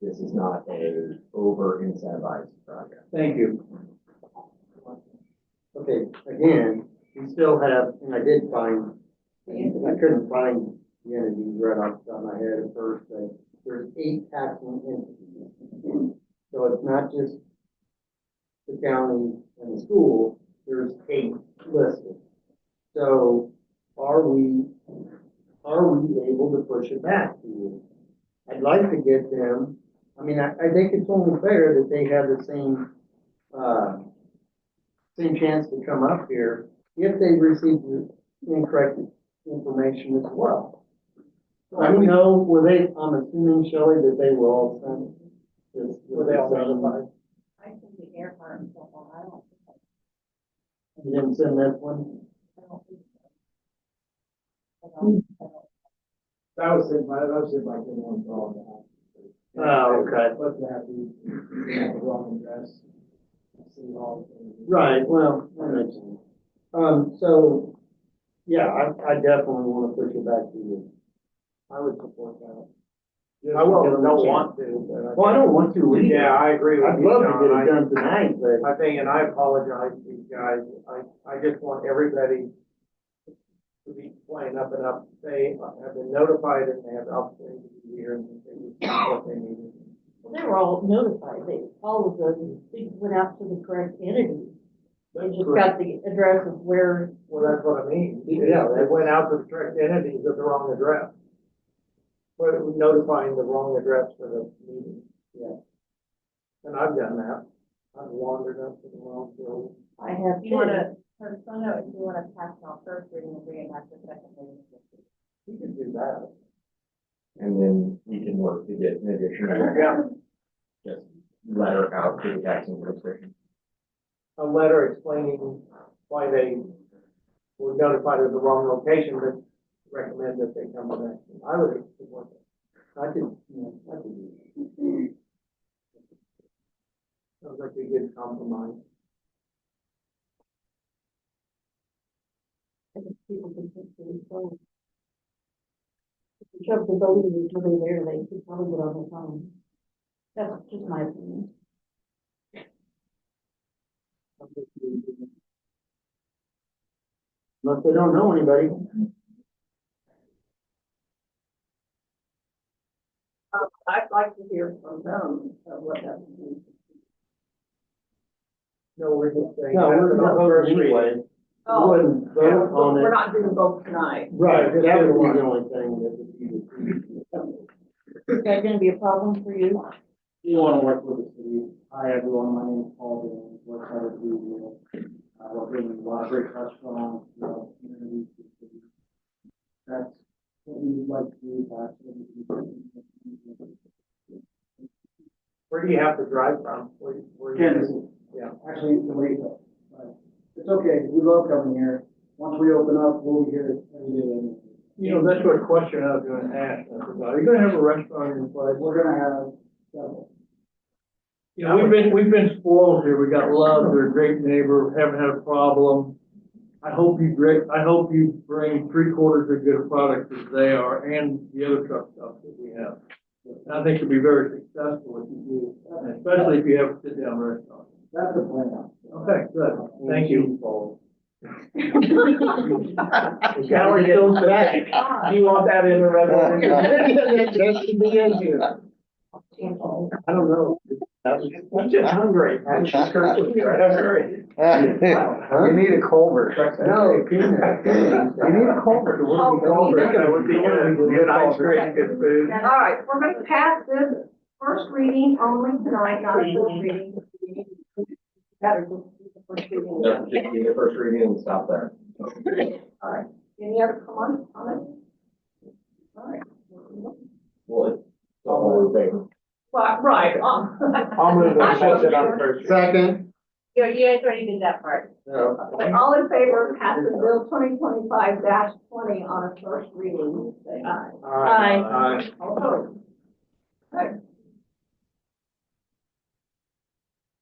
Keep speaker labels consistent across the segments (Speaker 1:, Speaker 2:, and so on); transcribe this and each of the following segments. Speaker 1: this is not a over incentivized project.
Speaker 2: Thank you. Okay, again, we still have, and I did find, I couldn't find the entities right off the top of my head at first, but there's eight taxing entities. So it's not just the county and the school, there's eight listed. So are we, are we able to push it back to you? I'd like to get them, I mean, I, I think it's only fair that they have the same uh, same chance to come up here if they received the incorrect information as well. I don't know, were they, I'm assuming, Shelley, that they were all sent this.
Speaker 3: Were they all notified?
Speaker 4: I think the airport and so on, I don't, think
Speaker 2: You didn't send that one?
Speaker 4: I don't think so. I
Speaker 5: Mm-hmm.
Speaker 4: don't, I don't.
Speaker 3: That was in my, that was in my good one for all that.
Speaker 2: Oh, okay.
Speaker 3: But that we have the wrong address. City Hall.
Speaker 2: Right, well, I mentioned. Um, so, yeah, I, I definitely want to push it back to you. I would support that.
Speaker 3: I will, don't want
Speaker 2: to.
Speaker 3: to,
Speaker 2: Well, I don't want to
Speaker 3: but.
Speaker 2: either.
Speaker 3: Yeah, I agree with
Speaker 2: I'd
Speaker 3: you,
Speaker 2: love to get it
Speaker 3: John.
Speaker 2: done tonight, but.
Speaker 3: I, I think, and I apologize to you guys, I, I just want everybody to be playing up and up, they have been notified and they have the opportunity to be here and they do what they need.
Speaker 4: They were all notified, they, all of the, things went out to the correct entity. They just got the address of where,
Speaker 3: Well, that's what I mean. Yeah, they went out to the correct entities at the wrong address. But it was notifying the wrong address for the meeting.
Speaker 2: Yeah.
Speaker 3: And I've done that. I've wandered up to the wrong field.
Speaker 4: I have.
Speaker 5: You wanna, for some note, if you wanna pass it on first reading and bring it back to second reading.
Speaker 3: You can do that.
Speaker 1: And then we can work to get an additional
Speaker 3: Yeah,
Speaker 1: just letter out to the taxing district.
Speaker 3: a letter explaining why they were notified of the wrong location, but recommend that they come back. I would support that.
Speaker 2: I could, yeah, I could do that.
Speaker 3: Sounds like a good compromise.
Speaker 4: I think people can think for themselves. If you shove the building is really there, they could probably get on the phone. That's just my opinion.
Speaker 2: Unless they don't know anybody.
Speaker 5: Uh, I'd like to hear from them, uh, what that means.
Speaker 3: No, we're just saying.
Speaker 2: No,
Speaker 3: that's
Speaker 2: we're
Speaker 3: the
Speaker 2: not
Speaker 3: first
Speaker 2: voting
Speaker 3: reading.
Speaker 2: anyway. We wouldn't
Speaker 5: Oh. Yeah,
Speaker 2: vote
Speaker 5: well,
Speaker 2: on
Speaker 5: We're
Speaker 2: it.
Speaker 5: not doing both tonight.
Speaker 2: Right,
Speaker 3: just
Speaker 2: that
Speaker 3: do
Speaker 2: would
Speaker 3: one.
Speaker 2: be the only thing that would be the.
Speaker 4: Is that gonna be a problem for you?
Speaker 6: You want to work with the city. Hi, everyone. My name is Paul Dillon. Work out of Louisville. I work in the library restaurant, you know, community. That's what we would like to do. That's what we would like
Speaker 3: Where do you have to drive from? Where, where?
Speaker 6: to do.
Speaker 3: you-
Speaker 6: Again, this is
Speaker 3: Yeah.
Speaker 6: actually the way it goes. But It's okay. We love coming here. Once we open up, we'll be here every day. anyway.
Speaker 3: You know, that's what question I was gonna ask, I forgot, are you gonna have a restaurant in place?
Speaker 6: We're going to have several.
Speaker 3: You know, we've been, we've been spoiled here, we got love, they're a great neighbor, haven't had a problem. I hope you bring, I hope you bring three quarters as good a product as they are, and the other truck stuff that we have. And I think you'll be very successful if you do, and especially if you have a sit-down restaurant.
Speaker 6: That's the plan.
Speaker 3: Okay, good, thank you.
Speaker 2: Coward goes back.
Speaker 3: Do you want that in the
Speaker 2: That should be in here.
Speaker 3: I don't know. I'm just hungry. I'm just hungry.
Speaker 2: Huh?
Speaker 1: need a culvert.
Speaker 2: No, peanut. You need a culvert.
Speaker 5: Oh,
Speaker 3: That would be good, good ice cream, good food.
Speaker 5: All right, we're gonna pass this first reading only tonight, not a full reading.
Speaker 4: Better just do the first reading.
Speaker 1: Just be the first reading and stop there.
Speaker 5: All right, any other comments, comments? All right.
Speaker 1: Well, it's all in favor.
Speaker 5: Well, right, um,
Speaker 3: I'll move the it on first.
Speaker 2: Second.
Speaker 5: you, you guys already did that part.
Speaker 2: No.
Speaker 5: But all in favor of passing bill twenty twenty-five twenty on a first reading, say aye.
Speaker 4: Aye.
Speaker 5: All opposed? Okay.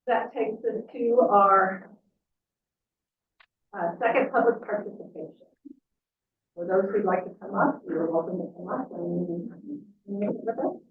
Speaker 5: That takes us to our uh, second public participation. For those who'd like to come up, you're welcome to come up and meet with us.